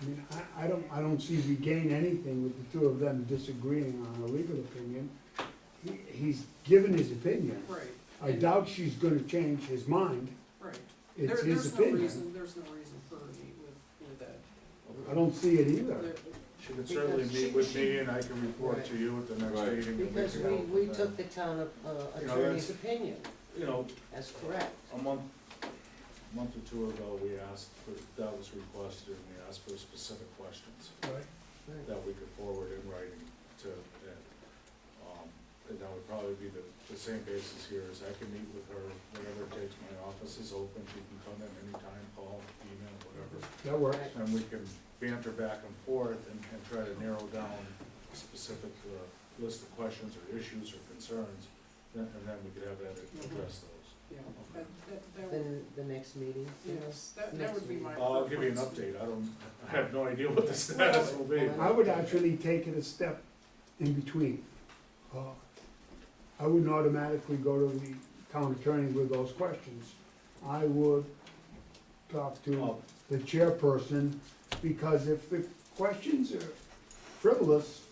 I mean, I, I don't, I don't see we gain anything with the two of them disagreeing on her legal opinion. He, he's given his opinion. Right, I doubt she's gonna change his mind. right. There, It's his there's no opinion. reason, there's no reason for her to meet with, with Ed. I don't see it either. There- She can certainly meet with me and I can report to you at the Right. next meeting. and Because can we, go we from took the town uh, You know, attorney's that's- opinion, there. You know, that's correct. a month, a month or two ago, we asked for, that was requested, and we asked for specific questions Right. Right. that we could forward in writing to Ed. Um, And that would probably be the, the same basis here, is I can meet with her whenever it takes, my office is open, she can come in anytime, call, email, whatever. That works. And we can banter back and forth and, and try to narrow down specific, uh, list of questions or issues or concerns, then, and then we could have that address those. Yeah, that, that, that would, Then the next meeting, you know? yes, that, that would be my. I'll give you an preference. update, I don't, I have no idea what the status will be. I would actually take it a step in between. Uh, I wouldn't automatically go to the town attorney with those questions. I would talk to Well, the chairperson, because if the questions are frivolous,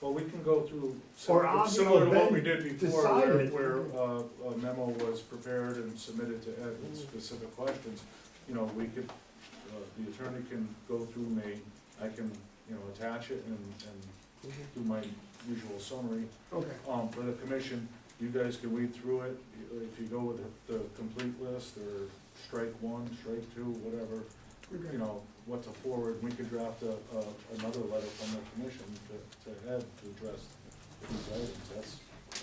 Well, we can go through, Or on similar the similar to what we event did before, where, decided. where uh, a memo was prepared and submitted to Ed with specific questions. You know, we could, uh, the attorney can go through me, I can, you know, attach it and, and Mhm. do my usual summary. okay, Um, for the commission, you guys can read through it, if you go with the, the complete list, or strike one, strike two, whatever, you know, what to forward, we could draft a, a, another letter from the commission to, to Ed to address these items, that's,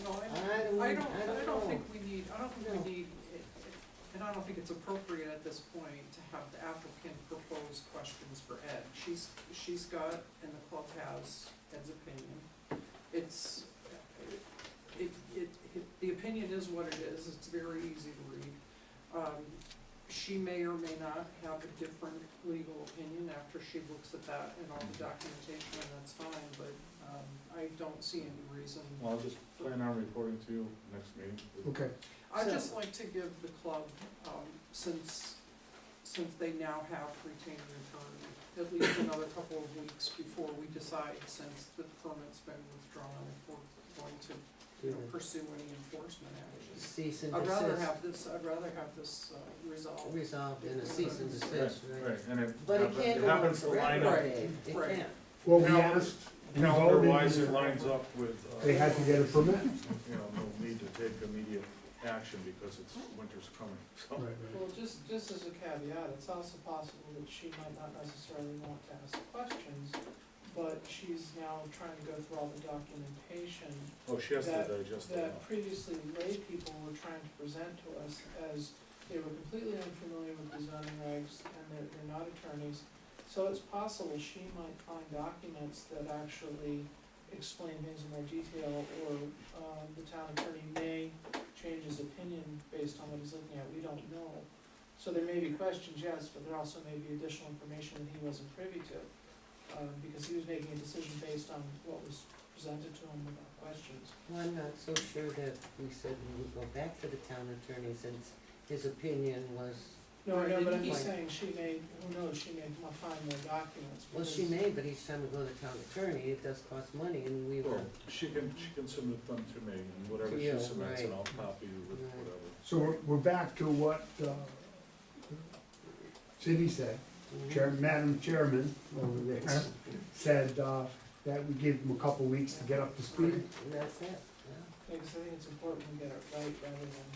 No, I, I don't, I don't, I don't think know. we need, I don't No. think we need, it- it- and I don't think it's appropriate at this point to have the applicant propose questions for Ed. She's, she's got, and the club has, Ed's opinion. It's, it, it, it- the opinion is what it is, it's very easy to read. Um, She may or may not have a different legal opinion after she looks at that and all the documentation, and that's fine, but, um, I don't see any reason well, I'll just plan on reporting to you next meeting. okay. I'd So- just like to give the club, um, since, since they now have retained an attorney, at least another couple of weeks before we decide, since the permit's been withdrawn, if we're going to, you know, pursue any enforcement actions. Cease and I'd rather desist, have this, I'd rather have this uh, resolved. resolved in a cease and Right, desist, right? right, and it But it happen- can't it go on happens to line forever, up, Dave, it Right. can't. Well, we Now- asked, we calendar-wise, it voted, lines up with, uh, they had to get a permit. you know, we'll need to take immediate action because it's, winter's coming, so. Right, right. Well, just, just as a caveat, it's also possible that she might not necessarily want to ask questions, but she's now trying to go through all the documentation Oh, she has to That- digest it. that previously lay people were trying to present to us as they were completely unfamiliar with the zoning regs and they're, they're not attorneys. So it's possible she might find documents that actually explain things in more detail or, um, the town attorney may change his opinion based on what he's looking at, we don't know. So there may be questions, yes, but there also may be additional information that he wasn't privy to, um, because he was making a decision based on what was presented to him without questions. Well, I'm not so sure that we said we would go back to the town attorney since his opinion was, No, I know, but I'm Right. just saying, she may, who knows, she may come up find more documents. well, she because- may, but each time we go to the town attorney, it does cost money and we were, Well, she can, she can submit them to me, and whatever Yeah, she submits, and right. I'll copy you with Right. whatever. So we're, we're back to what, uh, Cindy said, mm-hmm. Chair, Madam Chairman over there, said, uh, that we give them a couple weeks to get up to speed. and that's it, yeah. Like, 'cause I think it's important to get it right rather than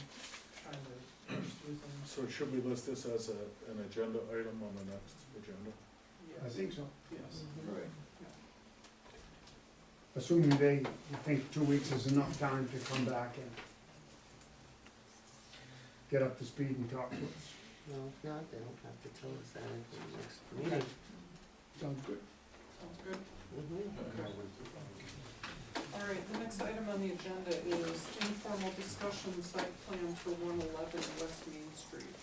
trying to push through things. So should we list this as a, an agenda item on the next agenda? I Yes, think so. yes. Mm-hmm. Right. Assuming they think two weeks is enough time to come back and get up to speed and talk to us. No, if not, they don't have to tell us that until the next meeting. Sounds good. Sounds good. Mhm. All right, the next item on the agenda is informal discussion site plan for one eleven West Main Street.